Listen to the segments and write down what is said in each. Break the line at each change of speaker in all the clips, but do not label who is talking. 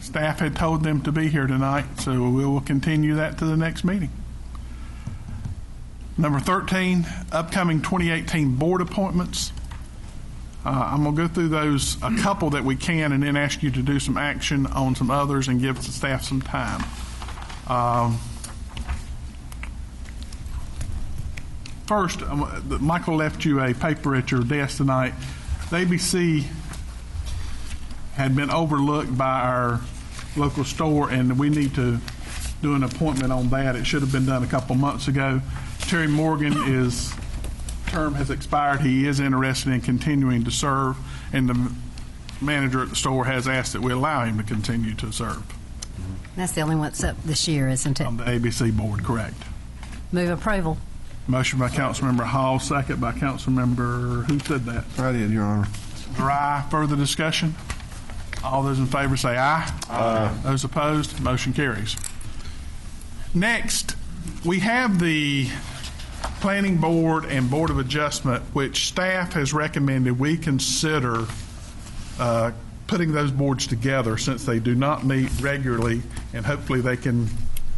staff had told them to be here tonight, so we will continue that to the next meeting. Number 13, upcoming 2018 board appointments. Uh, I'm going to go through those, a couple that we can, and then ask you to do some action on some others and give the staff some time. Um, First, um, uh, Michael left you a paper at your desk tonight. The ABC had been overlooked by our local store, and we need to do an appointment on that. It should have been done a couple months ago. Terry Morgan is, term has expired. He is interested in continuing to serve, and the manager at the store has asked that we allow him to continue to serve
That's the only one that's up this year, isn't it?
on the ABC board, correct?
Move approval.
Motion by Councilmember Hall, second by Councilmember, who said that?
I did, Your Honor.
Dry, further discussion? All those in favor say aye. Aye. Those opposed, motion carries. Next, we have the Planning Board and Board of Adjustment, which staff has recommended we consider uh, putting those boards together since they do not meet regularly, and hopefully they can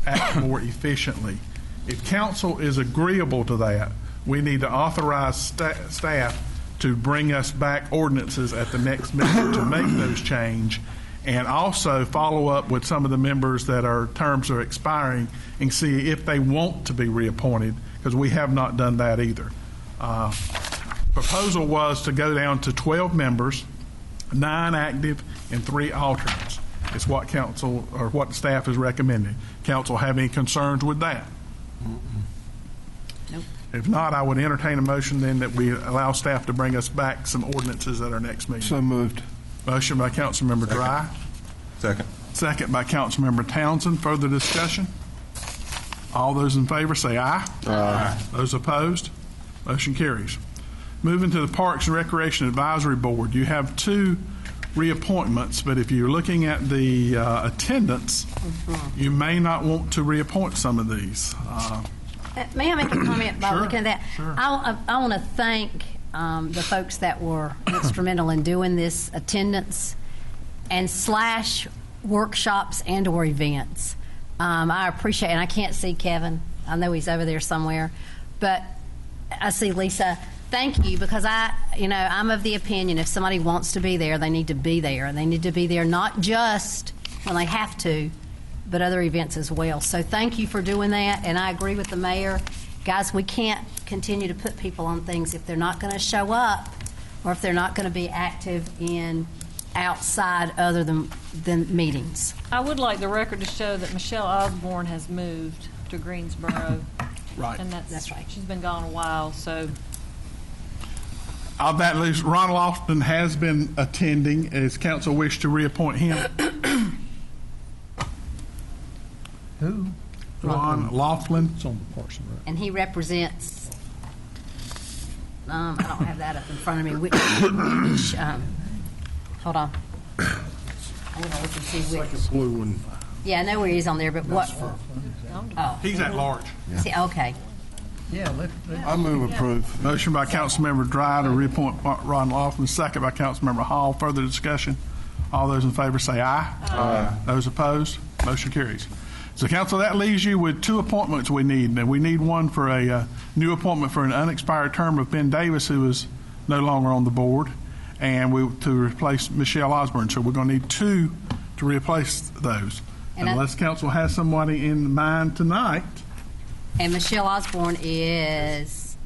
act more efficiently. If council is agreeable to that, we need to authorize sta- staff to bring us back ordinances at the next meeting to make those change, and also follow up with some of the members that our terms are expiring and see if they want to be reappointed, because we have not done that either. Uh, Proposal was to go down to 12 members, nine active and three alternates. It's what council, or what staff is recommending. Council have any concerns with that? If not, I would entertain a motion then that we allow staff to bring us back some ordinances at our next meeting.
So moved.
Motion by Councilmember Dry,
Second.
second by Councilmember Townsend. Further discussion? All those in favor say aye. Aye. Those opposed? Motion carries. Moving to the Parks and Recreation Advisory Board, you have two reappointments, but if you're looking at the uh, attendance, you may not want to reappoint some of these. Uh,
Uh, May I make a comment by
Sure,
looking at that?
sure.
I, I- I want to thank um, the folks that were instrumental in doing this attendance and slash workshops and or events. Um, I appreciate, and I can't see Kevin. I know he's over there somewhere, but I see Lisa. Thank you because I, you know, I'm of the opinion if somebody wants to be there, they need to be there, and they need to be there not just when they have to, but other events as well. So thank you for doing that, and I agree with the mayor. Guys, we can't continue to put people on things if they're not going to show up or if they're not going to be active in outside other than, than meetings.
I would like the record to show that Michelle Osborne has moved to Greensboro.
Right.
And that's,
That's right.
she's been gone a while, so
Of that list, Ronald Austin has been attending. Is council wish to reappoint him? Who? Ron Laughlin. It's on the Parks
And he represents, um, I don't have that up in front of me, which, which, um, hold on. I'm going to look and see which.
Blue one.
Yeah, I know where he is on there, but what? Oh,
He's at large.
see, okay.
I move approve.
Motion by Councilmember Dry to reappoint Ron Laughlin, second by Councilmember Hall. Further discussion? All those in favor say aye. Aye. Those opposed? Motion carries. So council, that leaves you with two appointments we need. And we need one for a uh, new appointment for an unexpired term of Ben Davis, who is no longer on the board, and we, to replace Michelle Osborne. So we're going to need two to replace those.
And I-
Unless council has somebody in mind tonight.
And Michelle Osborne is,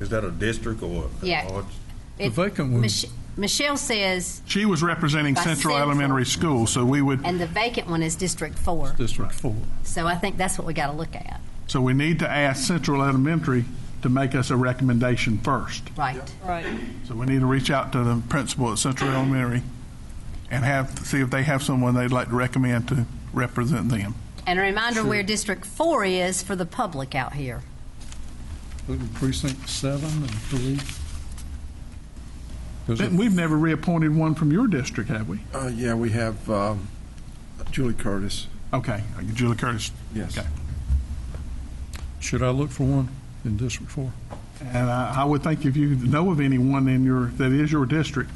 Is that a district or? a-
Yeah.
or it's-
The
vacant
Mm.
one.
Michelle says,
She was representing
By
Central
Central.
Elementary School, so we would
and the vacant one is District Four.
District Four.
So I think that's what we got to look at,
So we need to ask Central Elementary to make us a recommendation first.
right?
right.
So we need to reach out to the principal at Central Elementary and have, see if they have someone they'd like to recommend to represent them.
And a reminder where District Four is for the public out here.
Precinct Seven, I believe. There's
But
a-
We've never reappointed one from your district, have we?
Uh, yeah, we have, um, Julie Curtis.
Okay, Julie Curtis.
Yes.
Okay.
Should I look for one in District Four?
And I I would think if you know of anyone in your, that is your district,